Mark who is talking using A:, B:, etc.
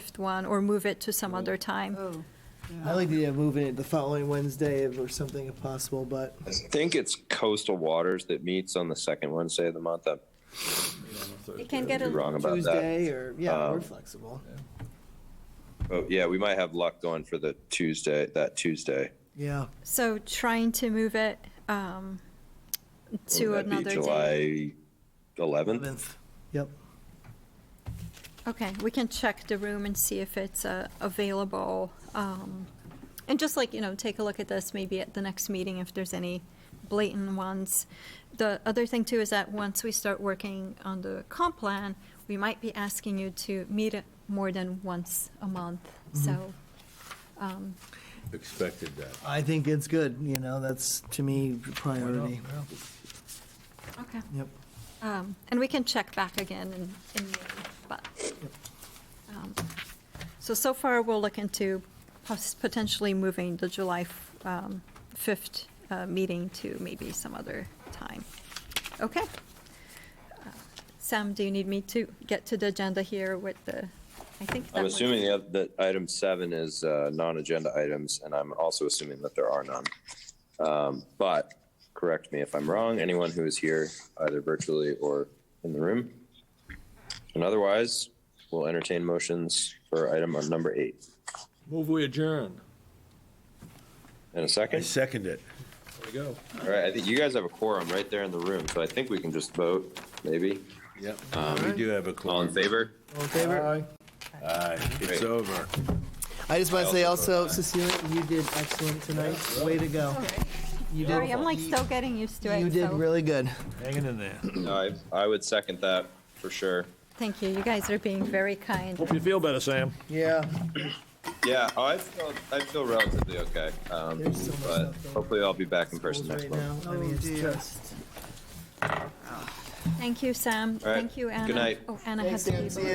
A: next one or move it to some other time.
B: Oh,
C: I like the idea of moving it the following Wednesday if- or something if possible, but
D: I think it's Coastal Waters that meets on the second Wednesday of the month. I'm
A: It can get
D: be
A: a,
D: wrong about that.
C: Tuesday or, yeah, we're
D: Um,
C: flexible.
D: But yeah, we might have luck going for the Tuesday, that Tuesday.
C: Yeah,
A: so trying to move it um, to
D: Wouldn't that be
A: another day.
D: July 11th.
C: 11th. Yep.
A: Okay, we can check the room and see if it's uh, available. um, And just like, you know, take a look at this maybe at the next meeting if there's any blatant ones. The other thing too is that once we start working on the comp plan, we might be asking you to meet it more than once a month.
D: Mm-hmm.
A: So um,
E: Expected that.
C: I think it's good, you know, that's to me priority.
A: Okay.
C: Yep.
A: Um, And we can check back again in, in May, but. um, So, so far, we'll look into pos- potentially moving the July f- um, 5th uh, meeting to maybe some other time. Okay. Uh, Sam, do you need me to get to the agenda here with the, I think that
D: I'm
A: was-
D: assuming the oth- that item seven is uh, non-agenda items, and I'm also assuming that there are none. Um, But correct me if I'm wrong, anyone who is here either virtually or in the room. And otherwise, we'll entertain motions for item number eight.
E: Move we adjourn.
D: In a
F: I
D: second?
F: second it.
E: There we go.
D: All right, I think you guys have a quorum right there in the room, so I think we can just vote, maybe.
F: Yep.
E: Um,
F: We do have a call.
D: All in favor?
C: All in
D: Uh,
C: favor?
F: Aye, it's
D: Great.
F: over.
C: I just want to say also, Cecilia, you did excellent tonight. Way to go. You did,
A: Sorry, I'm like still getting used to it.
C: you did
A: so-
C: really good.
F: Hanging in there.
D: I, Mm-hmm. I would second that, for sure.
A: Thank you. You guys are being very kind.
E: Hope you feel better, Sam.
C: Yeah.
D: Yeah, oh, I feel, I feel relatively okay. Um,
C: There's so much
D: but
C: stuff going
D: hopefully I'll be back in person next
C: Right
D: month.
C: now, I
A: Oh,
C: mean, it's just.
A: Thank you, Sam.
D: All right.
A: Thank you, Anna.
D: Good night.
A: Oh, Anna has a
C: Thanks,
A: paper.
C: Ann. See ya.